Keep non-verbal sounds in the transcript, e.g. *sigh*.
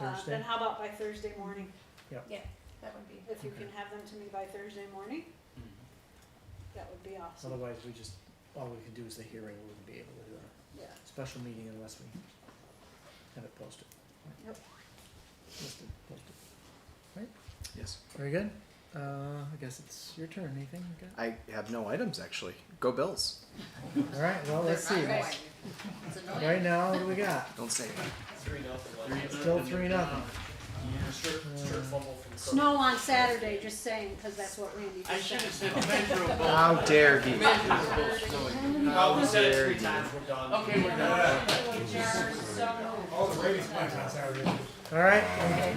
Uh, Thursday? Then how about by Thursday morning? That would be. If you Okay. Mm-hmm. can have them to me by Thursday morning, that would be awesome. Otherwise, we just, all we could do is the hearing, we wouldn't be able to do a Yeah. special meeting unless we have it posted. Yep. Listed, posted. Yes. Very good. Uh, I guess it's your turn, Nathan. you got- I have no items actually. Go Bills. All right, well, let's see. They're not Let's- going. It's annoying. Right now, what do we got? Don't say that. Three nothing. Still three nothing. Strict, strict fumble from. Snow on Saturday, just saying, because that's what Randy I did. should have *laughs* said measurable. How dare he? Measurable snowing. Oh, we said it dare three you. times, we're done. Okay, we're done. Adjourn, so moved. All the ladies' plans on Saturday. All right,